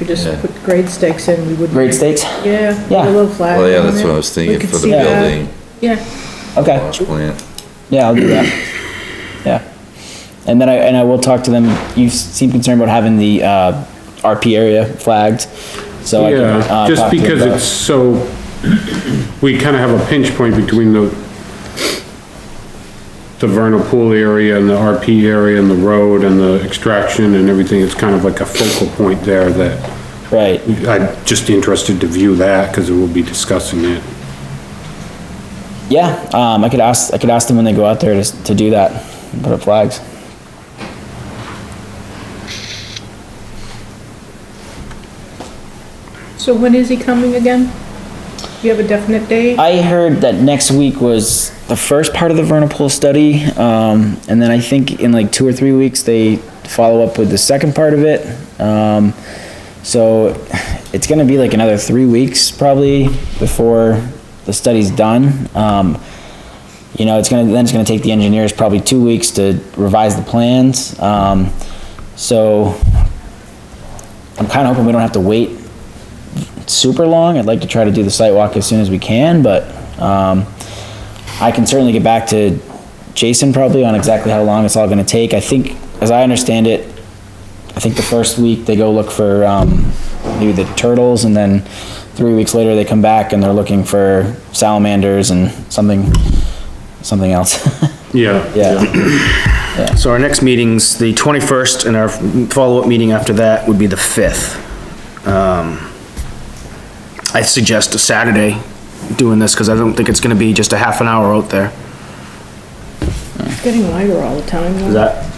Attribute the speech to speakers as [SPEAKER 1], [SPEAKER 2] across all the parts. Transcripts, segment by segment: [SPEAKER 1] we just
[SPEAKER 2] Yeah.
[SPEAKER 1] put grade stakes in, we would.
[SPEAKER 3] Grade stakes?
[SPEAKER 1] Yeah, put
[SPEAKER 3] Yeah.
[SPEAKER 1] a little flag.
[SPEAKER 2] Well, yeah,
[SPEAKER 1] on
[SPEAKER 3] Um,
[SPEAKER 2] that's
[SPEAKER 1] it.
[SPEAKER 2] what I was
[SPEAKER 1] We
[SPEAKER 2] thinking
[SPEAKER 1] could
[SPEAKER 2] for the
[SPEAKER 1] see
[SPEAKER 3] uh,
[SPEAKER 1] that.
[SPEAKER 2] building,
[SPEAKER 1] Yeah,
[SPEAKER 3] Okay.
[SPEAKER 2] wash plant.
[SPEAKER 3] Yeah, I'll do that. Yeah. And then I, and I will talk to them. You seem concerned about having the, uh, RP area flagged. So I can,
[SPEAKER 4] Yeah,
[SPEAKER 3] uh,
[SPEAKER 4] just
[SPEAKER 3] talk to them
[SPEAKER 4] because
[SPEAKER 3] about-
[SPEAKER 4] it's so, we kind of have a pinch point between the, the vernal pool area and the RP area and the road and the extraction and everything. It's kind of like a focal point there that
[SPEAKER 3] Right.
[SPEAKER 4] I'm just interested to view that because we'll be discussing it.
[SPEAKER 3] Yeah, um, I could ask, I could ask them when they go out there to, s- to do that, and put up flags.
[SPEAKER 1] so when is he coming again? Do you have a definite date?
[SPEAKER 3] I heard that next week was the first part of the vernal pool study, um, and then I think in like two or three weeks, they follow up with the second part of it. Um, so it's gonna be like another three weeks probably before the study's done. Um, you know, it's gonna, then it's gonna take the engineers probably two weeks to revise the plans. Um, so I'm kinda hoping we don't have to wait super long. I'd like to try to do the site walk as soon as we can, but, um, I can certainly get back to Jason probably on exactly how long it's all gonna take. I think, as I understand it, I think the first week they go look for, um, maybe the turtles and then three weeks later they come back and they're looking for salamanders and something, something else.
[SPEAKER 4] Yeah.
[SPEAKER 3] Yeah,
[SPEAKER 5] So our next meeting's the 21st, and our follow-up meeting after that would be the 5th. Um, I suggest a Saturday doing this, because I don't think it's gonna be just a half an hour out there.
[SPEAKER 1] It's getting lighter all the time.
[SPEAKER 5] Is that,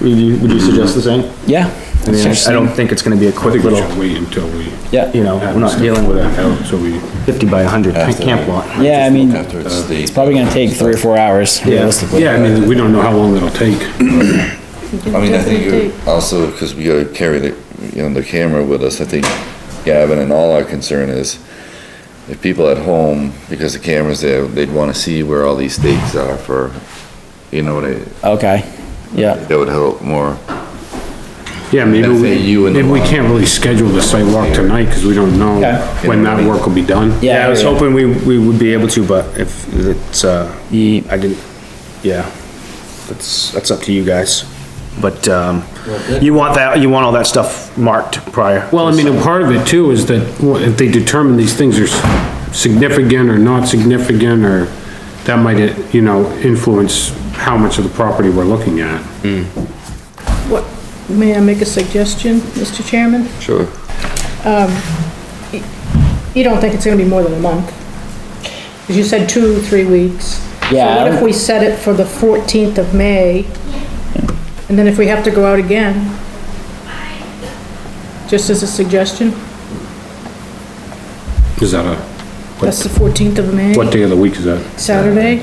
[SPEAKER 5] would you, would you suggest the same?
[SPEAKER 3] yeah.
[SPEAKER 5] I mean, I don't think it's gonna be a
[SPEAKER 4] I
[SPEAKER 5] quick
[SPEAKER 4] think we
[SPEAKER 5] little,
[SPEAKER 4] should wait until we.
[SPEAKER 3] Yeah,
[SPEAKER 5] you know, we're not dealing with a
[SPEAKER 4] that. So we,
[SPEAKER 5] 50 by 100 camp lot.
[SPEAKER 3] yeah, I mean,
[SPEAKER 2] After it's
[SPEAKER 3] it's
[SPEAKER 2] state,
[SPEAKER 3] probably gonna take three or four hours realistically.
[SPEAKER 4] yeah, I mean, we don't know how long it'll take.
[SPEAKER 2] I mean, I think
[SPEAKER 1] Definite
[SPEAKER 2] it
[SPEAKER 1] date.
[SPEAKER 2] would also, because we gotta carry the, you know, the camera with us, I think Gavin and all our concern is if people at home, because the camera's there, they'd wanna see where all these stakes are for, you know, what I-
[SPEAKER 3] Okay, yeah.
[SPEAKER 2] that would help more.
[SPEAKER 4] Yeah, maybe
[SPEAKER 2] That's a
[SPEAKER 4] we,
[SPEAKER 2] you and the
[SPEAKER 4] maybe we
[SPEAKER 2] lot.
[SPEAKER 4] can't really schedule the site walk tonight because we don't know
[SPEAKER 3] Okay.
[SPEAKER 4] when that work will be done.
[SPEAKER 5] Yeah, I was
[SPEAKER 3] yeah.
[SPEAKER 5] hoping we, we would be able to, but if it's, uh,
[SPEAKER 3] Ye-
[SPEAKER 5] I didn't, yeah. That's, that's up to you guys. But, um, you want that, you want all that stuff marked prior.
[SPEAKER 4] Well, I mean, and part of it too is that well, if they determine these things are s- significant or not significant or that might, eh, you know, influence how much of the property we're looking at.
[SPEAKER 1] What, may I make a suggestion, Mr. Chairman? Um,
[SPEAKER 2] Sure.
[SPEAKER 1] You don't think it's gonna be more than a month? Because you said two, three weeks.
[SPEAKER 3] Yeah, I
[SPEAKER 1] So what if
[SPEAKER 3] don't-
[SPEAKER 1] we set it for the 14th of May? And then if we have to go out again? Just as a suggestion,
[SPEAKER 4] Is that a,
[SPEAKER 1] that's the 14th of May,
[SPEAKER 4] what day of the week is that?
[SPEAKER 1] Saturday?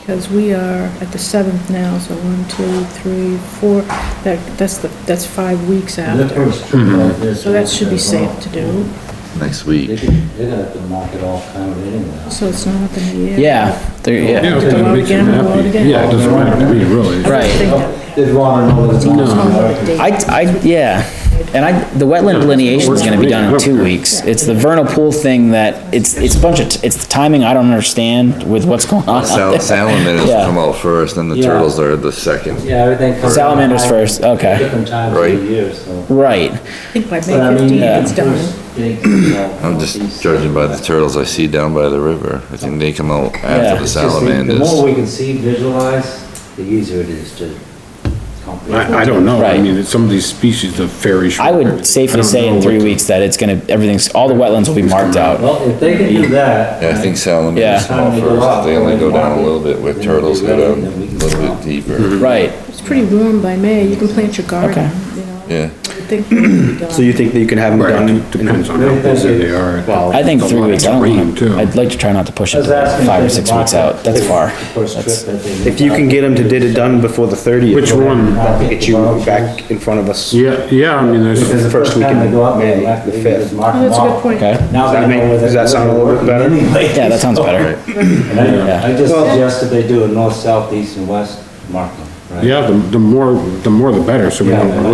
[SPEAKER 1] Because we are at the 7th now, so one, two, three, four. that, that's the, that's five weeks after.
[SPEAKER 2] Mm-hmm.
[SPEAKER 1] So that should be safe to do,
[SPEAKER 2] Next
[SPEAKER 6] They
[SPEAKER 2] week.
[SPEAKER 6] can- They're gonna have to mark it all kind of anyway.
[SPEAKER 1] so it's not up in the air.
[SPEAKER 3] Yeah, there, yeah,
[SPEAKER 4] Yeah, it doesn't make
[SPEAKER 1] Go out again,
[SPEAKER 4] you
[SPEAKER 1] go out
[SPEAKER 4] happy.
[SPEAKER 1] again.
[SPEAKER 4] Yeah, it doesn't matter to me, really.
[SPEAKER 3] right.
[SPEAKER 6] They'd Oh, wanna know that it's on.
[SPEAKER 3] I, I, yeah, and I, the wetland delineation is gonna be done in two weeks. It's the vernal pool thing that, it's, it's a bunch of, it's the timing I don't understand with what's going on out
[SPEAKER 2] Sal-
[SPEAKER 3] there.
[SPEAKER 2] Salamanders
[SPEAKER 3] Yeah.
[SPEAKER 2] come out first, then the
[SPEAKER 6] Yeah.
[SPEAKER 2] turtles are the second.
[SPEAKER 6] Yeah, everything. comes-
[SPEAKER 3] Salamanders first, okay.
[SPEAKER 6] Different times of
[SPEAKER 2] Right.
[SPEAKER 6] the year, so.
[SPEAKER 3] Right,
[SPEAKER 1] I think by May
[SPEAKER 6] But I mean,
[SPEAKER 1] 15th it's
[SPEAKER 6] yeah,
[SPEAKER 1] done.
[SPEAKER 6] there's big, you know,
[SPEAKER 2] I'm just
[SPEAKER 6] these-
[SPEAKER 2] judging by the turtles I see down by the river. I think they come out
[SPEAKER 3] Yeah.
[SPEAKER 2] after the
[SPEAKER 6] It's just the- The
[SPEAKER 2] salamanders.
[SPEAKER 6] more we can see, visualize, the easier it is to comprehend.
[SPEAKER 4] I, I don't know. I
[SPEAKER 3] Right.
[SPEAKER 4] mean, some of these species, the fairies.
[SPEAKER 3] I would
[SPEAKER 4] I
[SPEAKER 3] safely
[SPEAKER 4] don't
[SPEAKER 3] say
[SPEAKER 4] know
[SPEAKER 3] in three
[SPEAKER 4] what-
[SPEAKER 3] weeks that it's gonna, everything's, all the wetlands will be marked out.
[SPEAKER 6] Well, if they can do that.
[SPEAKER 2] Yeah, I think
[SPEAKER 3] Yeah.
[SPEAKER 2] salamanders come out first. They only go down a little bit where turtles go down a little bit deeper.
[SPEAKER 3] Right,
[SPEAKER 1] It's pretty warm by May, you can plant your garden, you know,
[SPEAKER 2] Yeah.
[SPEAKER 1] I think it'll be done.
[SPEAKER 5] So you think that you can have them
[SPEAKER 4] Right,
[SPEAKER 5] done?
[SPEAKER 4] it depends on how busy they are.
[SPEAKER 5] Well,
[SPEAKER 3] I think
[SPEAKER 4] It's a
[SPEAKER 3] three
[SPEAKER 4] lot
[SPEAKER 3] weeks,
[SPEAKER 4] of
[SPEAKER 3] I don't
[SPEAKER 4] rain,
[SPEAKER 3] want
[SPEAKER 4] too.
[SPEAKER 3] to, I'd like to try not to push
[SPEAKER 6] I
[SPEAKER 3] it
[SPEAKER 6] was asking
[SPEAKER 3] five or
[SPEAKER 6] if they
[SPEAKER 3] six
[SPEAKER 6] could
[SPEAKER 3] weeks
[SPEAKER 6] mark
[SPEAKER 3] out, that's
[SPEAKER 6] the
[SPEAKER 3] far.
[SPEAKER 6] first trip
[SPEAKER 3] That's-
[SPEAKER 6] that they-
[SPEAKER 5] If you can get them to did it done before the 30th.
[SPEAKER 4] Which one?
[SPEAKER 5] I'll Get you back in front of us.
[SPEAKER 4] Yeah, yeah, I mean,
[SPEAKER 6] Because
[SPEAKER 4] there's,
[SPEAKER 6] the
[SPEAKER 5] First
[SPEAKER 6] first time
[SPEAKER 5] weekend
[SPEAKER 6] they go up,
[SPEAKER 5] in
[SPEAKER 6] they
[SPEAKER 5] May,
[SPEAKER 6] have to
[SPEAKER 5] the
[SPEAKER 6] just
[SPEAKER 5] fifth.
[SPEAKER 6] mark
[SPEAKER 1] Oh,
[SPEAKER 6] them
[SPEAKER 1] that's a good
[SPEAKER 6] off.
[SPEAKER 1] point.
[SPEAKER 3] Okay,
[SPEAKER 6] Now
[SPEAKER 5] Does that
[SPEAKER 6] they know
[SPEAKER 5] make-
[SPEAKER 6] where
[SPEAKER 5] does
[SPEAKER 6] they're
[SPEAKER 5] that sound a little bit
[SPEAKER 6] working
[SPEAKER 5] better?
[SPEAKER 6] anyway.
[SPEAKER 3] yeah, that sounds better.
[SPEAKER 6] And I I just
[SPEAKER 5] Well-
[SPEAKER 6] suggested they do a north, south, east, and west marking, right?
[SPEAKER 4] yeah, the, the more, the more the better, so we
[SPEAKER 6] Yeah,
[SPEAKER 4] don't.